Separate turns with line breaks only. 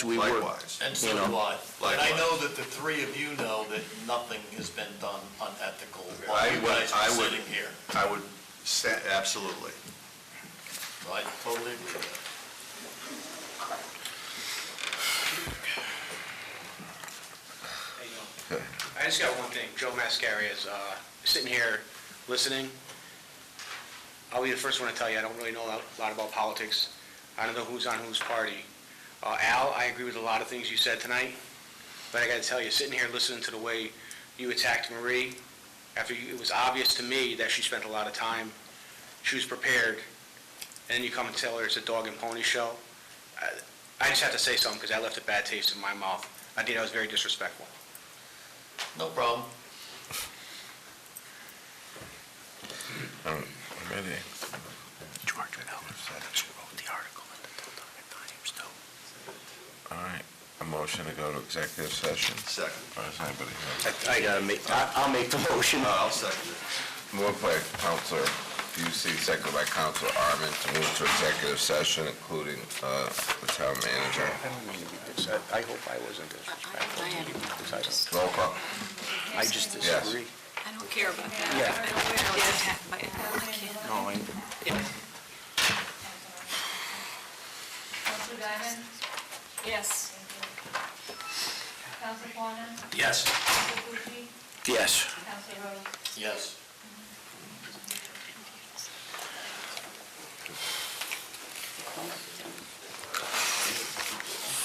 we work.
Likewise.
And so
You know,
do I. And I
likewise.
know that the three of you know that nothing has been done unethical
I
while you
would-
guys
I
are
would-
sitting here.
I would say, absolutely.
So I totally agree with
I just got one thing. Joe Mascari is uh, sitting here listening. I'll be the first one to tell you, I don't really know a lot about politics. I don't know who's on whose party. Uh, Al, I agree with a lot of things you said tonight, but I gotta tell you, sitting here listening to the way you attacked Marie, after you- it was obvious to me that she spent a lot of time, she was prepared, and then you come and tell her it's a dog and pony show. I- I just have to say something, because that left a bad taste in my mouth. I think that was very disrespectful.
that. No problem.
George Miller said it. wrote the article in the Deltonic Times, too. All right, a motion to go to executive session.
Second.
Or is anybody here?
I gotta make, I- I'll make the motion.
No, I'll second it.
Moved by Counselor Busey, seconded by Counselor Arman, to move to executive session, including uh, the town manager.
I don't mean to be dis, I I hope I wasn't disrespectful
I- I
to you,
am.
because I don't,
Roll call.
I just
Yes.
disagree.
I don't care about that.
Yeah.
I don't care. I was attacked by a kid.
No, I-
Counselor Diamond,
Yes.
Counselor Fawnin,
Yes.
Counselor Pucci,
Yes.
Counselor Rose.
Yes.